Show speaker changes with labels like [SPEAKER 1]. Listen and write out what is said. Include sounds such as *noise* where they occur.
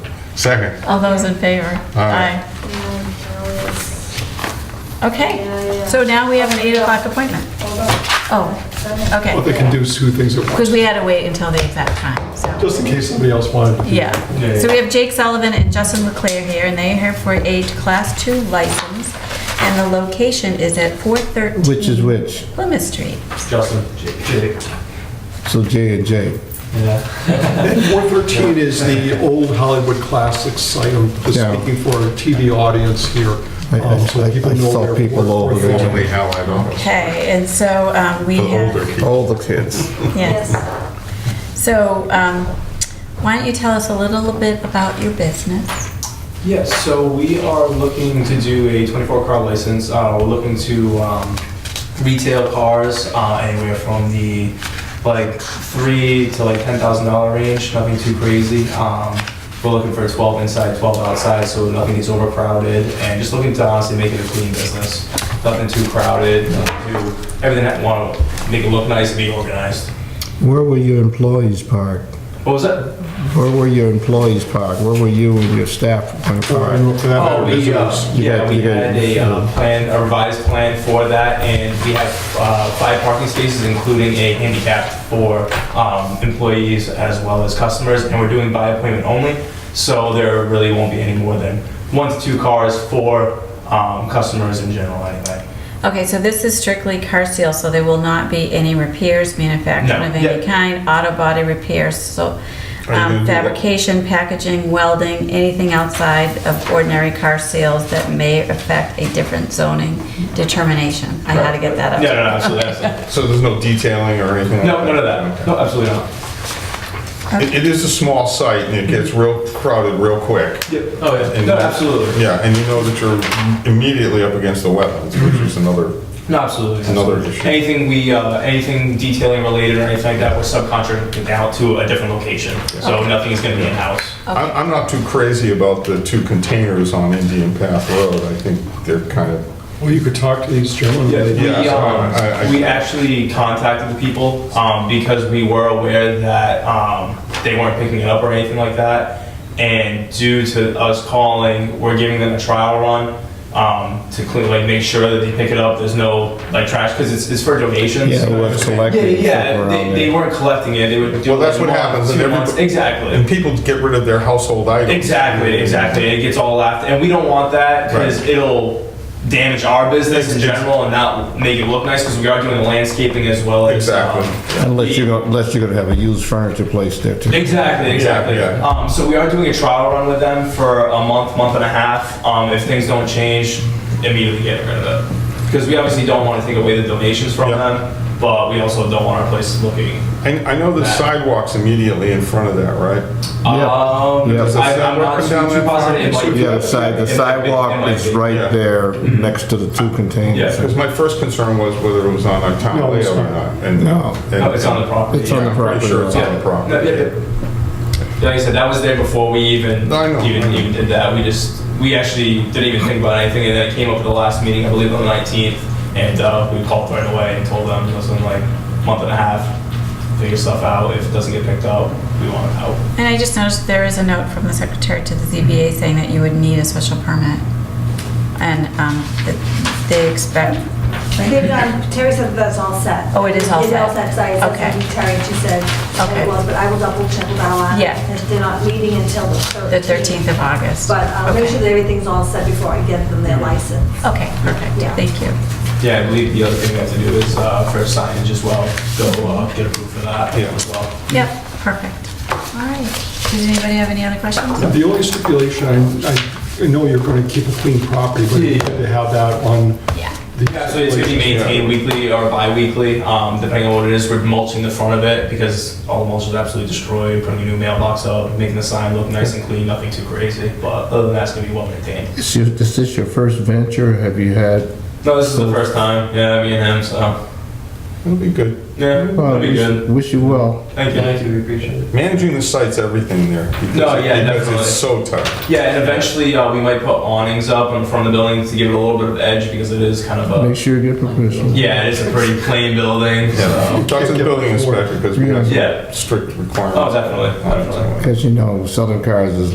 [SPEAKER 1] Second.
[SPEAKER 2] All those in favor?
[SPEAKER 1] Aye.
[SPEAKER 3] And now it's- Yeah,
[SPEAKER 2] Okay,
[SPEAKER 3] yeah.
[SPEAKER 2] so now we have an 8 o'clock appointment.
[SPEAKER 3] hold on.
[SPEAKER 2] Oh,
[SPEAKER 3] Done.
[SPEAKER 4] Well, they
[SPEAKER 2] okay.
[SPEAKER 4] can do two things at once,
[SPEAKER 2] Because we had to wait until the exact time, so.
[SPEAKER 4] just in case somebody else wanted to. do
[SPEAKER 2] Yeah.
[SPEAKER 4] Yeah,
[SPEAKER 2] So we have Jake Sullivan and Justin LeClaire here, and they are here for a Class 2 license. And the location is at 413.
[SPEAKER 5] Which is which?
[SPEAKER 2] Plymouth Street.
[SPEAKER 6] Justin. Jake.
[SPEAKER 5] So J and J.
[SPEAKER 6] Yeah.
[SPEAKER 4] 413 is the old Hollywood Classics site, I'm just
[SPEAKER 5] Yeah.
[SPEAKER 4] speaking for a TV audience here.
[SPEAKER 5] I- I-
[SPEAKER 4] um, so
[SPEAKER 5] I-
[SPEAKER 4] people
[SPEAKER 5] I
[SPEAKER 4] know
[SPEAKER 5] saw
[SPEAKER 4] their
[SPEAKER 5] people
[SPEAKER 4] work.
[SPEAKER 5] over there.
[SPEAKER 1] Formerly Allied Autos.
[SPEAKER 2] Okay, and so um, we
[SPEAKER 1] The
[SPEAKER 2] have...
[SPEAKER 1] older kids.
[SPEAKER 5] All the kids.
[SPEAKER 2] Yes. So um, why don't you tell us a little bit about your business?
[SPEAKER 6] Yes, so we are looking to do a 24-car license. Uh, We're looking to um, retail cars uh, anywhere from the, like, three to like $10,000 range, nothing too crazy. Um, We're looking for 12 inside, 12 outside, so nothing is overcrowded, and just looking to honestly make it a clean business. Nothing too crowded, nothing too, everything that want to make it look nice and be organized.
[SPEAKER 5] Where were your employees parked?
[SPEAKER 6] What was that?
[SPEAKER 5] Where were your employees parked? Where were you and your staff uh, when
[SPEAKER 4] Or in
[SPEAKER 5] parked?
[SPEAKER 4] look for that,
[SPEAKER 6] Oh, we, uh,
[SPEAKER 4] visitors.
[SPEAKER 5] You
[SPEAKER 6] yeah,
[SPEAKER 5] got-
[SPEAKER 6] we
[SPEAKER 5] you got-
[SPEAKER 6] had a uh, plan, a revised plan for that, and we have uh, five parking spaces, including a handicap for um, employees as well as customers, and we're doing by appointment only, so there really won't be any more than one to two cars for um, customers in general anyway.
[SPEAKER 2] Okay, so this is strictly car sales, so there will not be any repairs, manufacturing
[SPEAKER 6] No,
[SPEAKER 2] of
[SPEAKER 6] yeah.
[SPEAKER 2] any kind, auto body repairs, so
[SPEAKER 1] Are you gonna
[SPEAKER 2] um,
[SPEAKER 1] do that?
[SPEAKER 2] fabrication, packaging, welding, anything outside of ordinary car sales that may affect a different zoning determination. I had to get that
[SPEAKER 6] No,
[SPEAKER 2] up.
[SPEAKER 6] no, no, absolutely, absolutely.
[SPEAKER 1] So there's no detailing or anything? like
[SPEAKER 6] *laughs* No, none of that, no, absolutely not.
[SPEAKER 1] It it is a small site and it gets real crowded real quick.
[SPEAKER 6] Yeah, oh, yeah,
[SPEAKER 1] And-
[SPEAKER 6] no, absolutely,
[SPEAKER 1] Yeah, and you know that you're immediately up against the wetlands, which is another,
[SPEAKER 6] no, absolutely.
[SPEAKER 1] another issue.
[SPEAKER 6] Anything we, uh, anything detailing related or anything like that, we're subcontracting out to a different location. So nothing is gonna be in-house.
[SPEAKER 1] I'm, I'm not too crazy about the two containers on Indian Path Road. I think they're kind of,
[SPEAKER 5] Oh,
[SPEAKER 4] Well, you could talk to these gentlemen.
[SPEAKER 6] Yeah,
[SPEAKER 4] They-
[SPEAKER 6] we,
[SPEAKER 1] Yeah, so I- I-
[SPEAKER 6] um, we actually contacted the people, um, because we were aware that, um, they weren't picking it up or anything like that. And due to us calling, we're giving them a trial run, um, to clean, like, make sure that they pick it up, there's no, like, trash, cause it's, it's for donations.
[SPEAKER 5] Yeah, what's
[SPEAKER 6] Yeah,
[SPEAKER 5] collected?
[SPEAKER 6] yeah, they, they weren't collecting it, they would do.
[SPEAKER 1] Well, that's
[SPEAKER 6] it
[SPEAKER 1] what
[SPEAKER 6] once,
[SPEAKER 1] happens, and
[SPEAKER 6] two
[SPEAKER 1] everybody-
[SPEAKER 6] months. Exactly.
[SPEAKER 1] and people get rid of their household items.
[SPEAKER 6] Exactly, exactly. It gets all laughed, and we don't want that because
[SPEAKER 1] Right.
[SPEAKER 6] it'll damage our business in
[SPEAKER 1] Ex- ex-
[SPEAKER 6] general and not make it look nice because we are doing the landscaping as well as.
[SPEAKER 1] Exactly.
[SPEAKER 6] um,
[SPEAKER 5] Unless
[SPEAKER 6] the-
[SPEAKER 5] you're gonna, unless you're gonna have a used furniture place there too.
[SPEAKER 6] Exactly, exactly.
[SPEAKER 1] yeah.
[SPEAKER 6] Um, so we are doing a trial run with them for a month, month and a half. Um, if things don't change, immediately get rid of it because we obviously don't want to take away the donations from
[SPEAKER 1] Yeah.
[SPEAKER 6] them, but we also don't want our place looking.
[SPEAKER 1] And I know the
[SPEAKER 6] Uh,
[SPEAKER 1] sidewalk's immediately in front of that, right?
[SPEAKER 5] Yeah.
[SPEAKER 6] Um,
[SPEAKER 5] Yeah. Does
[SPEAKER 1] the
[SPEAKER 6] I, I'm
[SPEAKER 1] sidewalk
[SPEAKER 6] not
[SPEAKER 1] come
[SPEAKER 6] too,
[SPEAKER 1] down
[SPEAKER 6] too
[SPEAKER 1] that far?
[SPEAKER 6] positive. It might be-
[SPEAKER 5] Yeah, the side, the
[SPEAKER 6] it might be- it
[SPEAKER 5] sidewalk
[SPEAKER 6] might
[SPEAKER 5] is
[SPEAKER 6] be.
[SPEAKER 1] yeah.
[SPEAKER 5] right there next to the two containers.
[SPEAKER 6] Yeah.
[SPEAKER 1] Because my first concern was whether it was on a town
[SPEAKER 4] No,
[SPEAKER 1] layout
[SPEAKER 4] it's
[SPEAKER 1] or
[SPEAKER 4] not.
[SPEAKER 1] not. and-
[SPEAKER 5] No.
[SPEAKER 1] and-
[SPEAKER 6] No, Oh, it's on the property.
[SPEAKER 5] It's on
[SPEAKER 1] Yeah,
[SPEAKER 5] the
[SPEAKER 1] I'm pretty
[SPEAKER 5] property.
[SPEAKER 1] sure it's on
[SPEAKER 6] Yeah.
[SPEAKER 1] the property.
[SPEAKER 6] No, yeah, yeah. Like I said, that was there before we even,
[SPEAKER 1] I know, I
[SPEAKER 6] even,
[SPEAKER 1] know.
[SPEAKER 6] even did that. We just, we actually didn't even think about anything, and then it came up at the last meeting, I believe on the nineteenth, and, uh, we called right away and told them, you know, something like, month and a half, figure stuff out, if it doesn't get picked up, we want it out.
[SPEAKER 2] And I just noticed there is a note from the secretary to the ZBA saying that you would need a special permit. And um, that they expect,
[SPEAKER 3] They've done- Terry said that's all set.
[SPEAKER 2] Oh, it is all
[SPEAKER 3] It's all
[SPEAKER 2] set.
[SPEAKER 3] set, so I said
[SPEAKER 2] Okay.
[SPEAKER 3] to Terry, she said
[SPEAKER 2] Okay.
[SPEAKER 3] it was, but I will double check with Alan.
[SPEAKER 2] Yeah.
[SPEAKER 3] If They're not meeting until the 13th.
[SPEAKER 2] the 13th of August.
[SPEAKER 3] But uh, I'll
[SPEAKER 2] Okay.
[SPEAKER 3] make
[SPEAKER 2] Mm-hmm.
[SPEAKER 3] sure that everything's all set before I get them their license.
[SPEAKER 2] Okay, perfect,
[SPEAKER 3] Yeah.
[SPEAKER 2] thank you.
[SPEAKER 6] Yeah, I believe the other thing we have to do is, uh, for signage as well, go, uh, get approved for that
[SPEAKER 1] Yeah.
[SPEAKER 6] as well.
[SPEAKER 2] Yep, perfect. All right, does anybody have any other questions?
[SPEAKER 4] The only stipulation, I, I- I know you're going to keep a clean property, but you had to have that on
[SPEAKER 2] Yeah.
[SPEAKER 4] the.
[SPEAKER 6] Hmm. Yeah, so it's gonna be
[SPEAKER 1] Yeah.
[SPEAKER 6] maintained weekly or bi-weekly, um, depending on what it is, we're mulching the front of it, because all the mulch is absolutely destroyed, putting a new mailbox up, making the sign look nice and clean, nothing too crazy, but other than that, it's gonna be well maintained.
[SPEAKER 5] Is your- is this your first venture? Have you had?
[SPEAKER 6] No, this is the first time, yeah, me and him, so,
[SPEAKER 1] It'll be good.
[SPEAKER 6] yeah, it'll be good,
[SPEAKER 5] Wish you well.
[SPEAKER 6] thank you. Thank you, we appreciate it.
[SPEAKER 1] Managing the site's everything there. because-
[SPEAKER 6] No, yeah,
[SPEAKER 1] Because it's so tight.
[SPEAKER 6] Yeah, and eventually, uh, we might put awnings up in front of the building to give it a little bit of edge, because it is kind of a,
[SPEAKER 5] Make sure you get permission.
[SPEAKER 6] yeah, it is a pretty plain building, so,
[SPEAKER 1] Talk to the building inspector because we have
[SPEAKER 6] yeah,
[SPEAKER 1] strict requirements.
[SPEAKER 6] oh, definitely, definitely.
[SPEAKER 5] Because you know, Southern Cars is